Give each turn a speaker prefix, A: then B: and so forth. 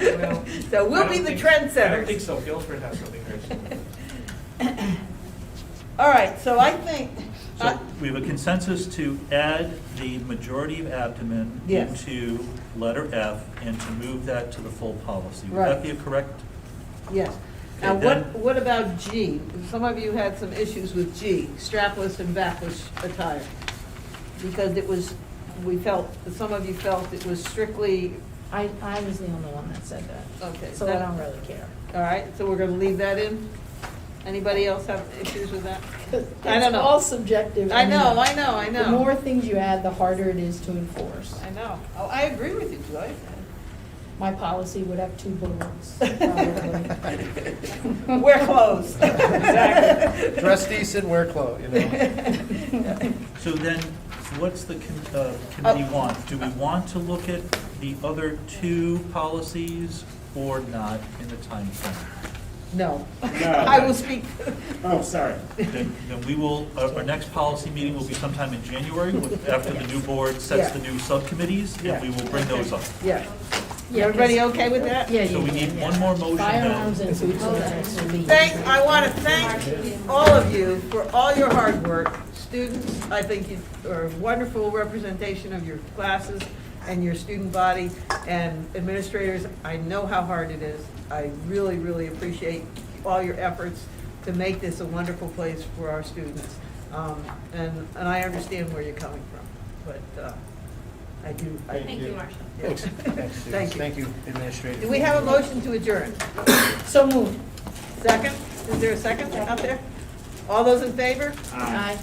A: Well,
B: So
A: I
B: we'll
A: don't
B: be the
A: think- I
B: trendsetters.
A: don't think so, Guilford has something very similar.
B: All right, so I think, I-
C: So we have a consensus to add the majority of abdomen
B: Yes.
C: into letter F and to move that to the full policy. Would
B: Right.
C: that be a correct?
B: yes. Now,
C: Okay,
B: what,
C: then.
B: what about G? Some of you had some issues with G, strapless and backless attire. Because it was, we felt, some of you felt it was strictly,
D: I, I was the only one that said that.
B: Okay,
D: So I
B: that-
D: don't really care.
B: all right, so we're gonna leave that in? Anybody else have issues with that? I don't
D: It's all
B: know.
D: subjective.
B: I know,
D: anyway.
B: I know, I know.
D: The more things you add, the harder it is to enforce.
B: I know. Oh, I agree with you, Joy.
D: My policy would have two bullets, probably.
B: Wear clothes.
E: Exactly. Dress decent, wear clothes, you know.
C: So then, what's the com-
B: Oh.
C: uh, committee want? Do we want to look at the other two policies or not in the time frame?
B: No.
F: No.
B: I will speak.
F: Oh, sorry.
C: Then then we will, our our next policy meeting will be sometime in January, with- after the new board sets the new subcommittees, and we will bring those up.
B: Yeah.
D: Yeah,
B: Everybody
D: 'cause-
B: okay with that?
D: Yeah,
C: So
D: yeah,
C: we
D: yeah,
C: need
D: yeah.
C: one more motion, though.
D: Firearms and food service will be-
B: Thank, I want to thank all of you for all your hard work. Students, I think you are a wonderful representation of your classes and your student body. And administrators, I know how hard it is. I really, really appreciate all your efforts to make this a wonderful place for our students. Um, And, and I understand where you're coming from, but uh, I do. I-
F: Thank
G: Thank
F: you.
G: you, Marcia.
B: yeah.
E: Thanks, thanks, Sue.
B: Thank you.
E: Thank you, Administrator.
B: Do we have a motion to adjourn?
D: So moved.
B: Second? Is there a second out there? All those in favor?
D: Aye.